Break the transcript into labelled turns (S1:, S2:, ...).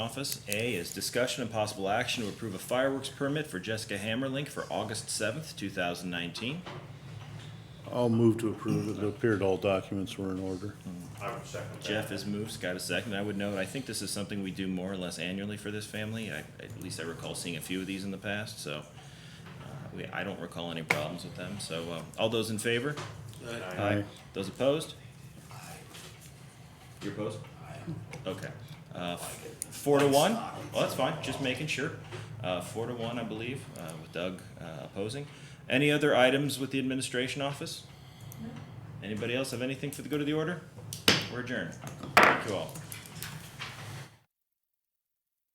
S1: Office. A is discussion and possible action to approve a fireworks permit for Jessica Hammerlink for August seventh, two thousand nineteen.
S2: I'll move to approve. It appeared all documents were in order.
S3: I would second that.
S1: Jeff has moved, Scott has seconded. I would note, I think this is something we do more or less annually for this family. I, at least I recall seeing a few of these in the past, so, uh, we, I don't recall any problems with them. So, uh, all those in favor?
S3: Aye.
S2: Aye.
S1: Those opposed? You're opposed? Okay. Uh, Four to one? Well, that's fine, just making sure. Uh, Four to one, I believe, uh, with Doug uh, opposing. Any other items with the administration office? Anybody else have anything for the good of the order? We're adjourned. Thank you all.